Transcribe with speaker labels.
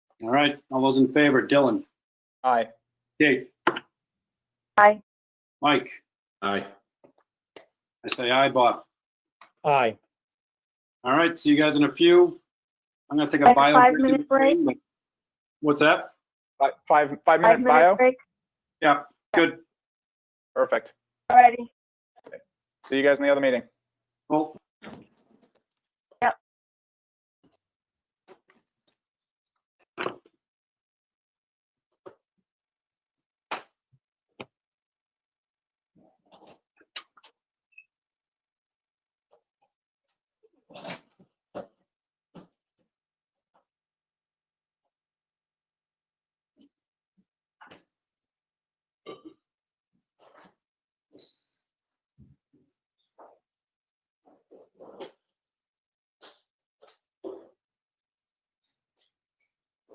Speaker 1: All right, all those in favor, Dylan,
Speaker 2: Aye.
Speaker 1: Kate,
Speaker 3: Aye.
Speaker 1: Mike,
Speaker 4: Aye.
Speaker 1: I say aye, Bob.
Speaker 2: Aye.
Speaker 1: All right, see you guys in a few. I'm gonna take a
Speaker 3: Like a
Speaker 1: bio. break in
Speaker 3: five-minute
Speaker 1: between, but- What's that?
Speaker 2: Fi- Five, five minute bio?
Speaker 3: Five-minute break.
Speaker 1: Yeah, good.
Speaker 2: Perfect.
Speaker 3: Alrighty.
Speaker 2: See you guys in the other meeting.
Speaker 1: Well,